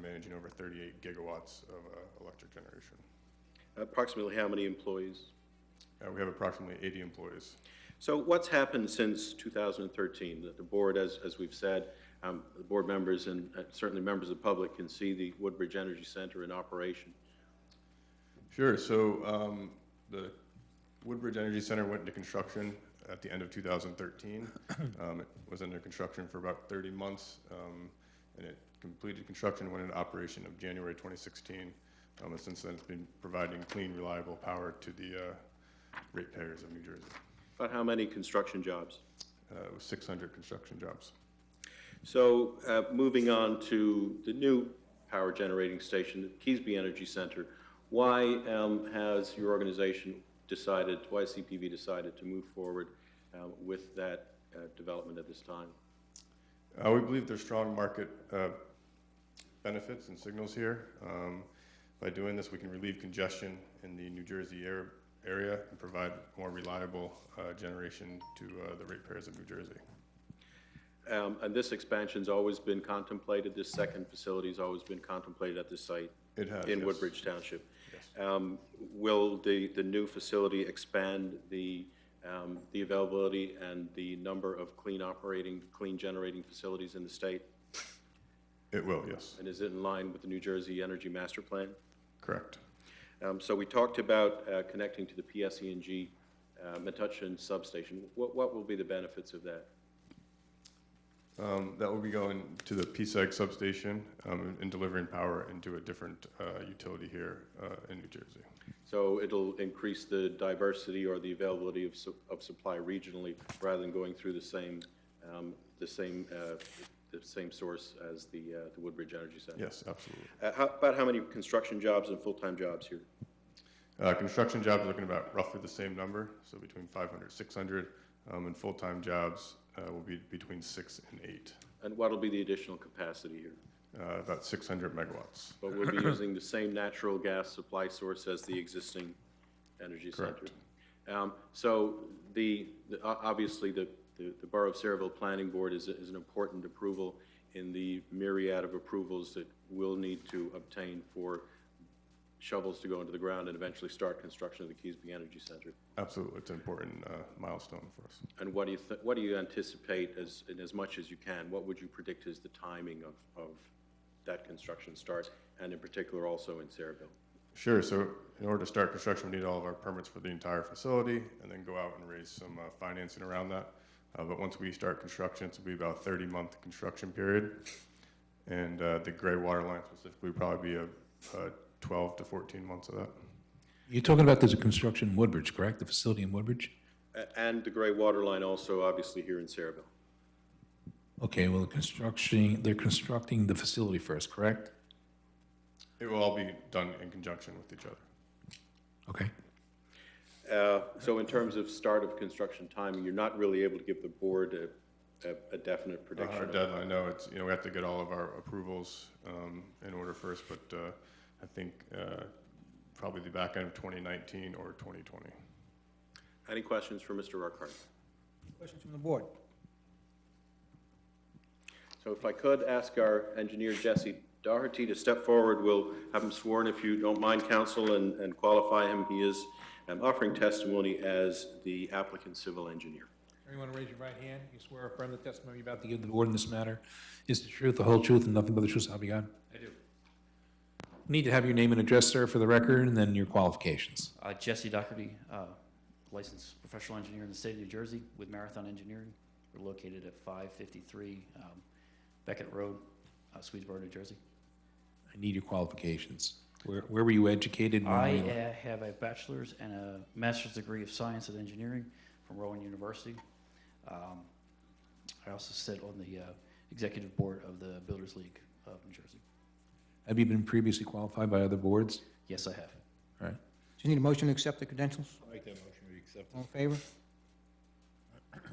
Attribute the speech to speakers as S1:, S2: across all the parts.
S1: managing over 38 gigawatts of uh, electric generation.
S2: Approximately how many employees?
S1: Uh, We have approximately 80 employees.
S2: So what's happened since 2013? The- The board, as, as we've said, um, the board members and uh, certainly members of the public can see the Woodbridge Energy Center in operation.
S1: Sure. So um, the Woodbridge Energy Center went into construction at the end of 2013. um, it was under construction for about 30 months, um, and it completed construction and went into operation of January 2016. Um, and since then, it's been providing clean, reliable power to the uh, ratepayers of New Jersey.
S2: About how many construction jobs?
S1: Uh, it was 600 construction jobs.
S2: So uh, moving on to the new power generating station, the Keesby Energy Center, why um, has your organization decided, why has CPV decided to move forward uh, with that uh, development at this time?
S1: Uh, we believe there's strong market uh, benefits and signals here. Um, by doing this, we can relieve congestion in the New Jersey air, area and provide more reliable uh, generation to uh, the ratepayers of New Jersey.
S2: Um, And this expansion's always been contemplated, this second facility's always been contemplated at this site
S1: It has
S2: in
S1: yes.
S2: Woodbridge Township. Um, Will the, the new facility expand the, um, the availability and the number of clean operating, clean generating facilities in the state?
S1: It will, yes,
S2: And is it in line with the New Jersey Energy Master Plan?
S1: correct.
S2: Um, So we talked about uh, connecting to the PSEG uh, Metuchen substation. What, what will be the benefits of that?
S1: Um, that will be going to the PSEG substation um, and delivering power into a different uh, utility here uh, in New Jersey.
S2: So it'll increase the diversity or the availability of, su- of supply regionally rather than going through the same, um, the same, uh, the same source as the, uh, the Woodbridge Energy Center?
S1: Yes, absolutely.
S2: Uh, how, about how many construction jobs and full-time jobs here?
S1: Uh, construction jobs, looking about roughly the same number, so between 500, 600, um, and full-time jobs uh, will be between six and eight,
S2: And what'll be the additional capacity here?
S1: uh, about 600 megawatts.
S2: But we'll be using the same natural gas supply source as the existing energy center.
S1: Correct.
S2: Um, So the, the- o- obviously, the, the the Borough of Saraville Planning Board is, is an important approval in the myriad of approvals that we'll need to obtain for shovels to go into the ground and eventually start construction of the Keesby Energy Center.
S1: Absolutely, it's an important uh, milestone for us.
S2: And what do you, thi- what do you anticipate as, in as much as you can, what would you predict is the timing of, of that construction start, and in particular also in Saraville?
S1: Sure, so in order to start construction, we need all of our permits for the entire facility, and then go out and raise some uh, financing around that. Uh, But once we start construction, it's will be about 30-month construction period, and uh, the gray water line specifically would probably be a uh, 12 to 14 months of that.
S3: You're talking about there's a construction in Woodbridge, correct? The facility in Woodbridge?
S2: A- And the gray water line also, obviously, here in Saraville.
S3: Okay, well, the construction, they're constructing the facility first, correct?
S1: It will all be done in conjunction with each other.
S3: Okay.
S2: Uh, So in terms of start of construction timing, you're not really able to give the board a- a, a definite
S1: Our
S2: prediction.
S1: deadline, no, it's, you know, we have to get all of our approvals um, in order first, but uh, I think uh, probably the back end of 2019 or 2020.
S2: Any questions for Mr. Urquhart?
S4: Question from the board.
S2: So if I could ask our engineer Jesse Doherty to step forward, we'll have him sworn if you don't mind, counsel, and, and qualify him. He is um, offering testimony as the applicant civil engineer.
S3: Everyone raise your right hand. You swear or affirm the testimony you're about to give the board in this matter is the truth, the whole truth, and nothing but the truth, so help you God? I do. Need to have your name and address, sir, for the record, and then your qualifications.
S5: Uh, Jesse Doherty, uh, licensed professional engineer in the state of New Jersey with Marathon Engineering. We're located at 553 um, Beckett Road, uh, Swedesboro, New Jersey.
S3: I need your qualifications. Where, where were you educated? when
S5: I
S3: were you-
S5: uh, have a bachelor's and a master's degree of science and engineering from Rowan University. Um, I also sit on the uh, executive board of the Builders League of New Jersey.
S3: Have you been previously qualified by other boards?
S5: Yes, I have.
S3: All right.
S4: Do you need a motion to accept the credentials?
S6: Make that motion, we accept
S4: All in favor?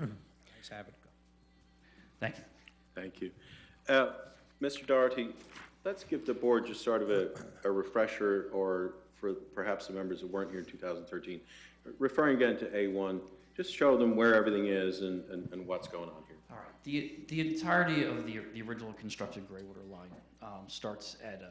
S4: Ayes have it.
S5: Thank you.
S2: Thank you. Uh, Mr. Doherty, let's give the board just sort of a a refresher, or for perhaps the members that weren't here in 2013, referring again to A1, just show them where everything is and and and what's going on here.
S5: All right. The, the entirety of the, the original constructed gray water line um, starts at uh,